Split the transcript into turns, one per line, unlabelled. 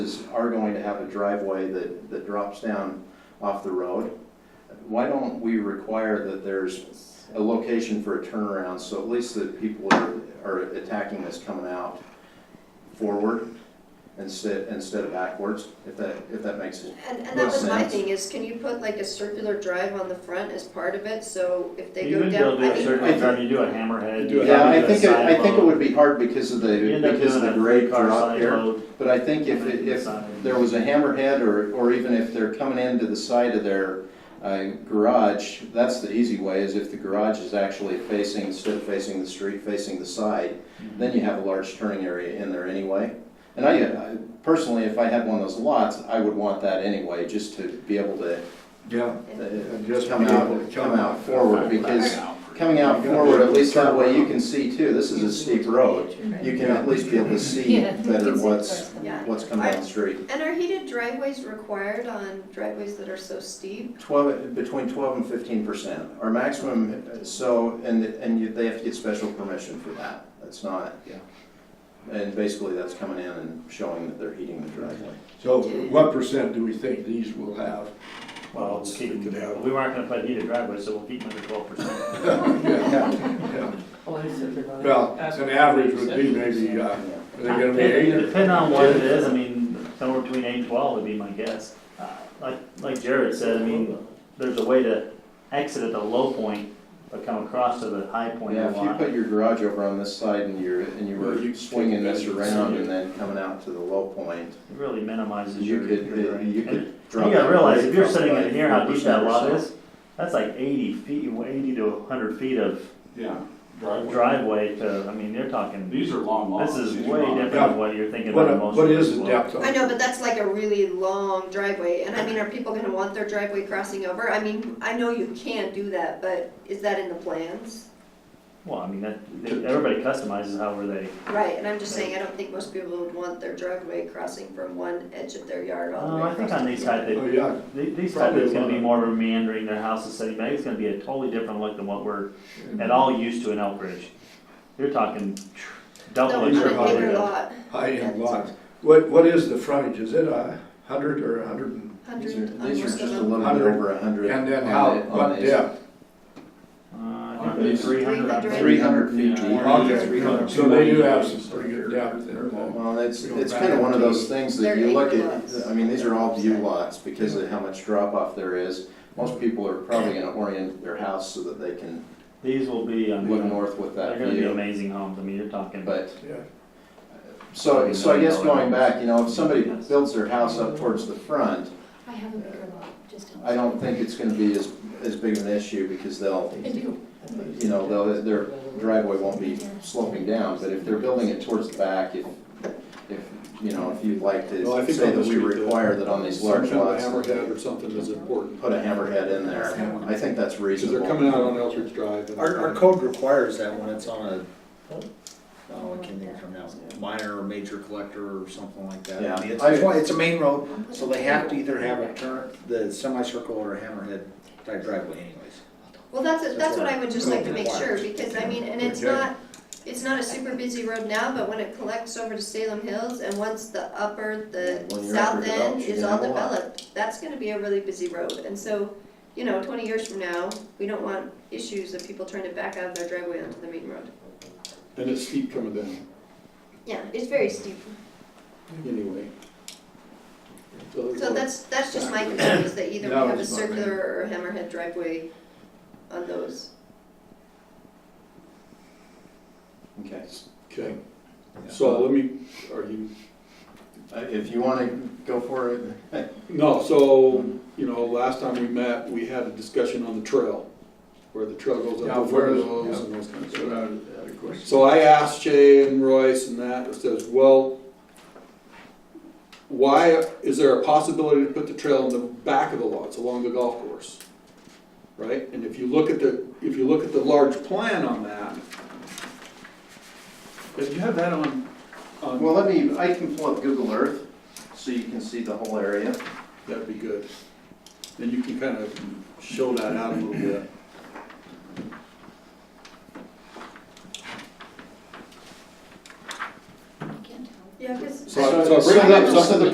houses are going to have a driveway that, that drops down off the road, why don't we require that there's a location for a turnaround, so at least the people are, are attacking this coming out forward instead, instead of backwards, if that, if that makes it.
And, and that
Makes
was my
sense.
thing, is can you put like a circular drive on the front as part of it, so if they
You
go
would be able
down,
to
I
do a
think.
circular
I
drive, you do a hammerhead. you
Yeah,
probably
I
do a
think, it- I
side
think it
load.
would be hard because of
You
the,
end up
because of
doing
the
a
grade
three-car
drop
side
here.
load,
But I think if,
and then
it- if
side.
there was a hammerhead, or, or even if they're coming into the side of their uh, garage, that's the easy way, is if the garage is actually facing, instead of facing the street, facing the side, then you have a large turning area in there anyway. And I, I- personally, if I had one of those lots, I would want that anyway, just to be able to
Yeah, And
uh,
just
come
be able
out,
to
come
come
out
out.
forward, because coming out forward, at least that way you can see too, this is a steep road. You can at least be able to see
Yeah.
better what's,
Yeah.
what's coming down the street.
And are heated driveways required on driveways that are so steep?
Twelve, between twelve and fifteen percent, our maximum, so, and, and you, they have to get special permission for that, that's not.
Yeah.
And basically, that's coming in and showing that they're heating the driveway.
So what percent do we think these will have?
Well, we'll keep, we weren't gonna put heated driveways, so we'll keep them under twelve percent.
Yeah. Well, an average would be maybe, uh, are they gonna be eight or?
Depending on what it is, I mean, somewhere between eight and twelve would be my guess. Uh, Like, like Jared said, I mean, there's a way to exit at the low point, but come across to the high point
Yeah,
of
if
the
you
lot.
put your garage over on this side and you're, and you were
You
swinging this
could-
around and then coming out to the low point,
It really minimizes
you
your. your
could,
drain.
you
And
could drop.
You gotta
that
realize,
grade
if you're
up
sitting
by
in here, how deep that
4% or
lot
so.
is, that's like eighty feet, eighty to hundred feet of
Yeah,
driveway to, I mean, they're talking,
These are long
this
lawns.
is
These are
way
long.
different than what you're thinking about
What,
most.
what
people
is the
will.
depth of?
I know, but that's like a really long driveway, and I mean, are people gonna want their driveway crossing over? I mean, I know you can't do that, but is that in the plans?
Well, I mean, that, everybody customizes however they,
Right, and I'm just saying, I don't think most people would want their driveway crossing from one edge of their yard all the
Uh,
way
I think
across.
on these type,
Oh,
they-
yeah,
they- these type,
Probably
it's gonna be
one.
more meandering, their house is sitting back, it's gonna be a totally different look than what we're at all used to in Elk Ridge. You're talking
No,
double.
on
these
your
are
a
high
bigger
end.
lot,
high-end lots. What, what is the frontage? Is it a hundred or a hundred and?
These
hundred,
are,
on
these are
most
just
of
a
them.
little bit
Hundred.
over a hundred.
And then
on
how,
the- on
what
these.
depth?
Uh, I think
These-
three hundred.
Three hundred feet
Yeah.
deep.
Okay.
Three hundred.
So they do have some pretty good depth there. though.
Well, it's,
We don't
it's
back
kind of
up
one of
to-
those things that
They're
you look
acre
at,
lots.
I mean, these are all view
Yeah.
lots because of how much drop off there is. Most people are probably gonna orient their house so that they can
These will be, I
look
mean,
north with
they're
that
gonna be
view.
amazing homes, I mean, you're talking.
But,
Yeah.
so, so I guess going back, you know, if somebody builds their house up towards the front,
I have a bigger lot, just.
I don't think it's gonna be as, as big of an issue because they'll,
I do.
you know, they'll, their driveway won't be sloping down. But if they're building it towards the back, if, if, you know, if you'd like
Well, I
to
think
say
on the
that we
street, uh, the-
require that on these large
Some kind
lots.
of hammerhead or something is important,
put a hammerhead in there. I think that's
because they're coming
reasonable.
out on Eldridge Drive. and-
Our, our code requires that when it's on a, oh, I can't think of it now, minor or major collector or something like that.
Yeah.
I mean, It's, it's one- it's a main road, so they have to either have a turn, the semicircle or a hammerhead type driveway anyways.
Well, that's, that's what I would just like to make sure,
Required.
because I mean, and it's
Okay.
not, it's not a super busy road now, but when it collects over to Salem Hills, and once the upper, the
When you're
south
upper
end
developed, you're
is
gonna
all
have a lot.
developed, that's gonna be a really busy road, and so, you know, twenty years from now, we don't want issues of people trying to back out of their driveway onto the main road.
And it's steep coming down,
Yeah, it's very steep,
anyway.
so that's, that's just my concern, is that either we
That
have a
was my main-
circular or a hammerhead driveway on those.
Okay.
Okay, so let me, are you,
Uh, If you want to go for it, hey,
no, so, you know, last time we met, we had a discussion on the trail, where the trail goes
Yeah,
up the
where-
foothills and those kinds of
So
stuff.
that that of course.
So I asked Jay and Royce and that, it says, well, why, is there a possibility to put the trail in the back of the lots along the golf course? Right, and if you look at the, if you look at the large plan on that, if you have that on, on,
well, let me, I can pull up Google Earth so you can see the whole area.
that'd be good. Then you can kind of show that out a little bit.
I can't tell.
Yeah, 'cause
So I- so I bring it up,
So the- so the